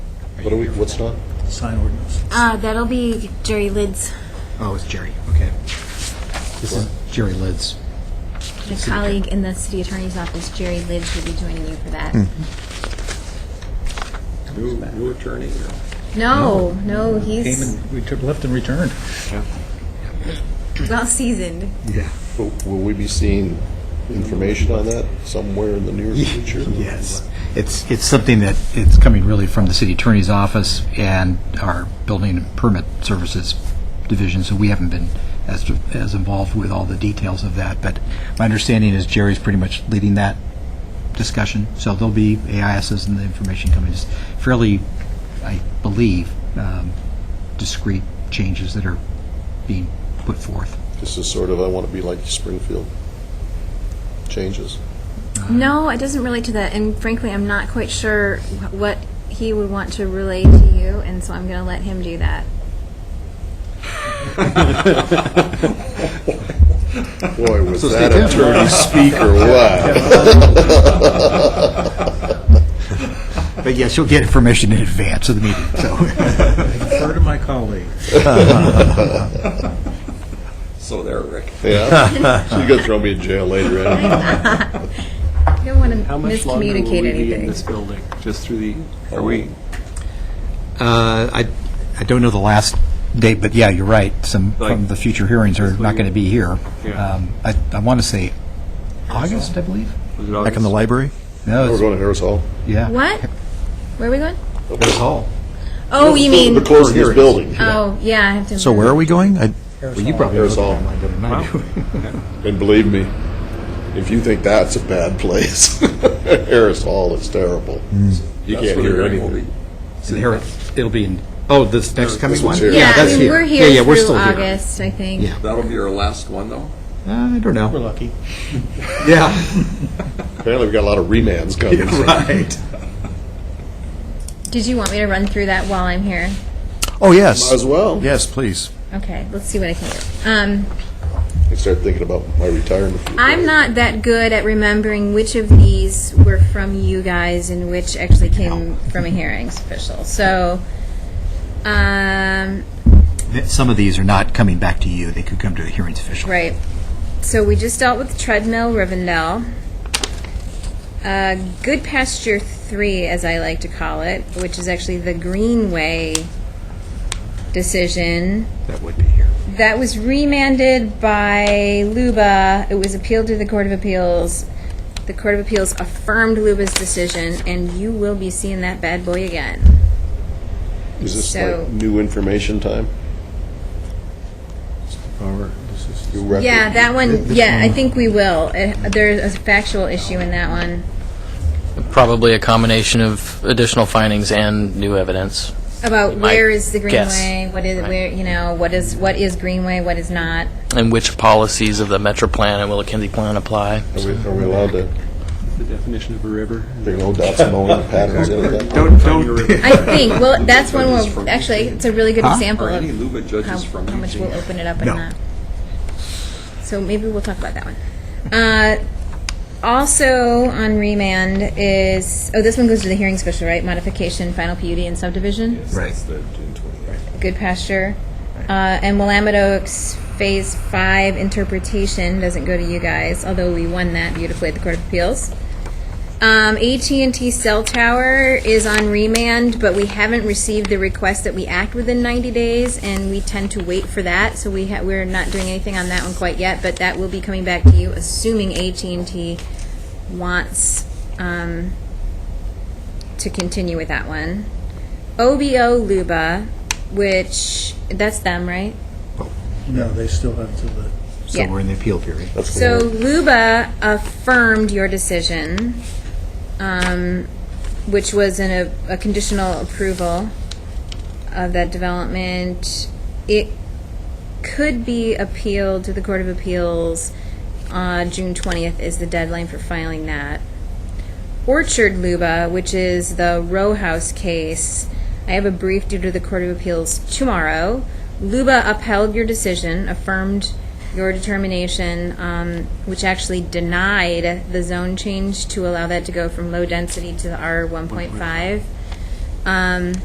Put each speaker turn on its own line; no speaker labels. What are we, what's not?
sign ordinance.
Uh, that'll be Jerry Lids,
Oh, it's Jerry, okay. This is Jerry Lids.
my colleague in the city attorney's office, Jerry Lids, will be joining you for that.
New, new attorney. or-
No, no,
Came
he's
and retu- left and returned.
well seasoned.
Yeah.
Will will we be seeing information on that somewhere in the near future?
Yes. It's, it's something that, it's coming really from the city attorney's office and our building and permit services division, so we haven't been as, as involved with all the details of that, but my understanding is Jerry's pretty much leading that discussion, so there'll be AISs and the information coming, It's fairly, I believe, um, discrete changes that are being put forth.
This is sort of, I want to be like Springfield changes.
No, it doesn't relate to that, and frankly, I'm not quite sure wh- what he would want to relay to you, and so I'm going to let him do that.
Boy, was that attorney speak or what?
But yes, you'll get information in advance of the meeting, so.
Refer to my colleague.
So there, Rick.
Yeah? She's going to throw me in jail later, eh? anyway.
I don't want to
How much longer will we
miscommunicate
be in
anything.
this building? Just through the,
Are we,
Uh, I, I don't know the last date, but yeah, you're right. Some
Like-
from the future hearings are not going to be here.
Yeah.
Um, I, I want to say August, I believe.
was it
Back in the
August?
library?
No,
We're
it's,
going to Harris Hall.
yeah.
What? Where are we going?
Harris Hall.
Oh, you mean?
We're closing this building.
Oh, yeah, I have to.
So where are we going? I-
Well, you probably
Harris
looked
Hall.
online better than I do.
And believe me, if you think that's a bad place, Harris Hall is terrible.
Mm.
You
that's where
can't
the
hear
hearing will
anything.
be.
So Harris- It'll be in. Oh, this next coming
one's
one.
here.
Yeah, I
that's
mean, we're
Yeah, yeah,
here
we're
through
still here.
August, I think.
Yeah.
That'll be our last one, though?
I don't
We're
know.
lucky.
Yeah.
Apparently, we've got a lot of remands coming. so-
right.
Did you want me to run through that while I'm here?
Oh, yes.
Might As well.
Yes, please.
Okay, let's see what I can do. Um,
I started thinking about my retirement.
I'm not that good at remembering which of these were from you guys and which actually came from a hearings official. So, um,
Some of these are not coming back to you. They could come to the hearings official.
right. So we just dealt with treadmill Rivendell. Uh, good pasture three, as I like to call it, which is actually the Greenway decision.
That would be here.
That was remanded by Luba. It was appealed to the Court of Appeals. The Court of Appeals affirmed Luba's decision, and you will be seeing that bad boy again.
Is this
So-
like new information time? New record?
Yeah, that one, yeah, I think we will. It- There's a factual issue in that one.
Probably a combination of additional findings and new evidence.
About
might
where is the
guess.
Greenway, what is, where, you know, what is, what is Greenway, what is not.
And which policies of the Metro Plan and Willikinzie Plan apply.
Are we, are we allowed to
The definition of a river.
bring old dots and all the patterns in with that?
Don't, don't.
I think, well, that's one where, actually, it's a really good example
Are
of
any Luba
how,
judges from
how much
Eugene?
we'll open it up and not. So maybe we'll talk about that one. Uh, also on remand is, oh, this one goes to the hearing special, right? Modification, final PUD and subdivision?
Right.
Good pasture. Uh, and Willamette Oaks Phase Five interpretation doesn't go to you guys, although we won that beautifully at the Court of Appeals. Um, AT&T cell tower is on remand, but we haven't received the request that we act within 90 days, and we tend to wait for that, so we ha- we're not doing anything on that one quite yet, but that will be coming back to you, assuming AT&T wants um, to continue with that one. OBO Luba, which, that's them, right?
No, they still have to the
So
Yeah.
we're in the appeal period.
That's
So
cool.
Luba affirmed your decision, um, which was in a, a conditional approval of that development. It could be appealed to the Court of Appeals. Uh, June 20th is the deadline for filing that. Orchard Luba, which is the row house case, I have a brief due to the Court of Appeals tomorrow. Luba upheld your decision, affirmed your determination, um, which actually denied the zone change to allow that to go from low density to the R 1.5. Um,